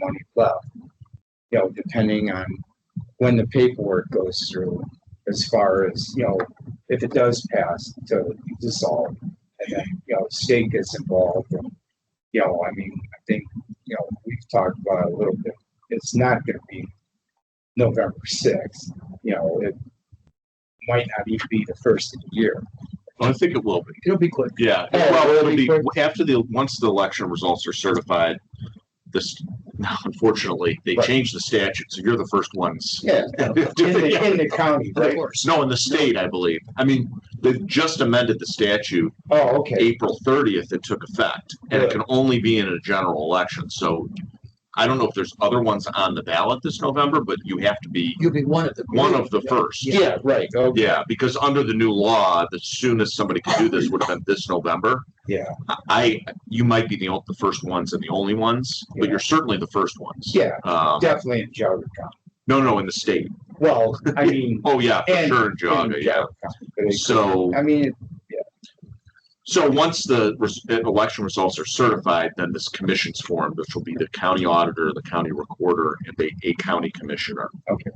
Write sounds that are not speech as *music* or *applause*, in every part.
money left. You know, depending on when the paperwork goes through, as far as, you know, if it does pass to dissolve. And then, you know, state gets involved and, you know, I mean, I think, you know, we've talked about it a little bit. It's not gonna be November sixth, you know, it might not even be the first of the year. Well, I think it will be. It'll be quick. Yeah, Yeah, well, it'll it'll be be, quick. after the, once the election results are certified, this, unfortunately, they Right. changed the statute, so you're the first ones. *laughs* Yeah, Yeah. in the, in the county, right? No, in the state, I believe. I mean, they've just amended the statute Oh, okay, April thirtieth it took effect, and it Good. can only be in a general election, so I don't know if there's other ones on the ballot this November, but you have to be You'll be one of the. one of the first. yeah, right, okay, Yeah, because under the new law, the soonest somebody could do this would have been this November. yeah, I, you might be the, o- the first ones and the only ones, but Yeah. you're certainly the first ones. yeah, Um, definitely in Jogga County. no, no, in the state. Well, I mean. Oh, yeah, for and- sure in in Jaga, yeah. Jogga County, but it- So, I mean, so once the res- the election results are certified, then this commission's formed, which will be the county auditor, the county recorder, and the, a county commissioner. Okay.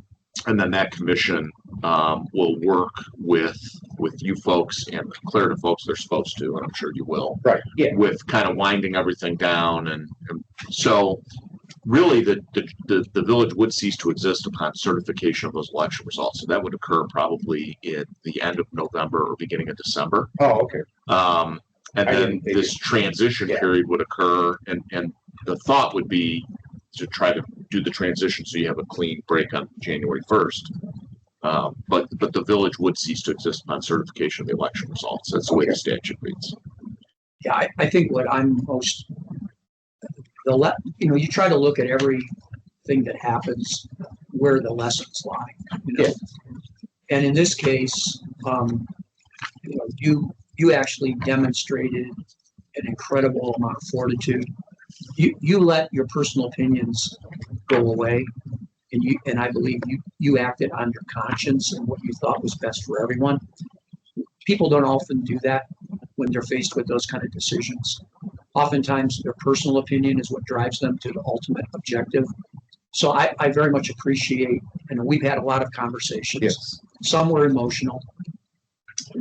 And then that commission, um, will work with, with you folks and the Clarendon folks, they're supposed to, and I'm sure you will. right, yeah, with kind of winding everything down and, and so really the, the, the, the village would cease to exist upon certification of those election results. So that would occur probably at the end of November or beginning of December. oh, okay, Um, and I then didn't think this transition Yeah. period would occur and, and the thought would be to try to do the transition so you have a clean break on January first. Um, but, but the village would cease to exist upon certification of the election results. That's the way the statute reads. Yeah, I, I think what I'm most, the le, you know, you try to look at everything that happens, where the lessons lie, you know? And in this case, um, you know, you, you actually demonstrated an incredible amount of fortitude. You, you let your personal opinions go away, and you, and I believe you, you acted on your conscience and what you thought was best for everyone. People don't often do that when they're faced with those kind of decisions. Oftentimes, their personal opinion is what drives them to the ultimate objective. So I, I very much appreciate, and we've had a lot of conversations. yes, Some were emotional,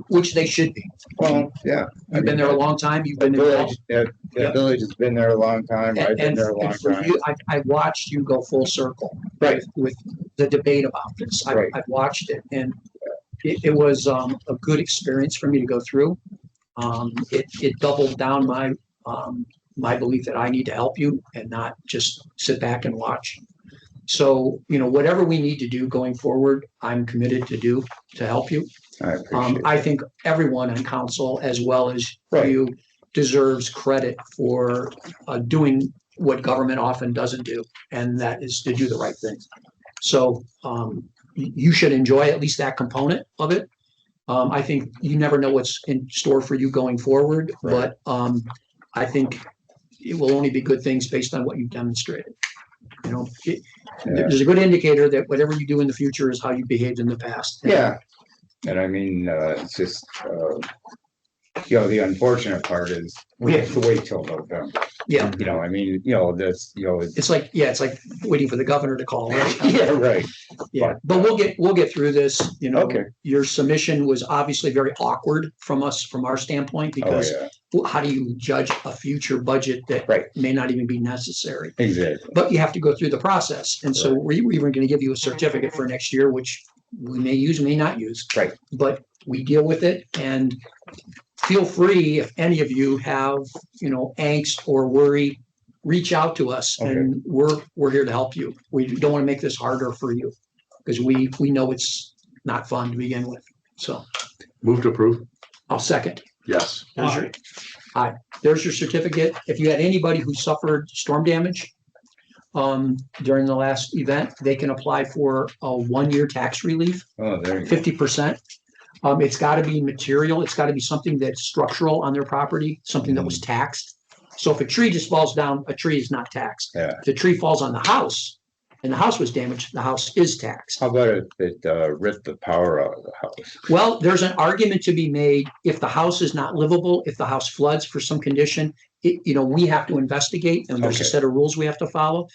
which they should be. well, yeah. I You've been mean, there a long time, you've The been involved. village, the, the Yeah. village has been there a long time, I've And, been and there a long and for time, you, I, I watched you go full circle. Right. with- With the debate about this. I, Right. I watched it and it, it was, um, a good experience for me to go through. Um, it, it doubled down my, um, my belief that I need to help you and not just sit back and watch. So, you know, whatever we need to do going forward, I'm committed to do to help you. I Um, appreciate it, I think everyone on council, as well as Right. you, deserves credit for uh, doing what government often doesn't do, and that is to do the right thing. So um, y- you should enjoy at least that component of it. Um, I think you never know what's in store for you going forward, Right. but um, I think it will only be good things based on what you've demonstrated. You know, it- Yeah. there's a good indicator that whatever you do in the future is how you behaved in the past. yeah. And I mean, uh, it's just, uh, you know, the unfortunate part is, we have to wait till November, Yeah. you know, I mean, you know, that's, you *laughs* know, it's- It's like, yeah, it's like waiting for the governor to call. right? *laughs* yeah, right, Yeah, but we'll get, we'll get through this, you know. Okay. Your submission was obviously very awkward from us, from our standpoint, oh, because yeah, wh- how do you judge a future budget that Right. may not even be necessary? exactly, But you have to go through the process. And so we, we were gonna give you a certificate for next year, which we may use, may not use. Right. But we deal with it and feel free, if any of you have, you know, angst or worry, reach out to us Okay. and we're, we're here to help you. We don't want to make this harder for you because we, we know it's not fun to begin with. So Move to approve? I'll second. Yes. There's your, aye. There's your certificate. If you had anybody who suffered storm damage um, during the last event, they can apply for a one-year tax relief, oh, there you go, fifty percent. Um, it's gotta be material. It's gotta be something that's structural on their property, something that was taxed. So if a tree just falls down, a tree is not taxed. Yeah. If the tree falls on the house and the house was damaged, the house is taxed. how about if it, uh, ripped the power out of the house? Well, there's an argument to be made if the house is not livable, if the house floods for some condition, it, you know, we have to investigate and there's a Okay. set of rules we have to follow.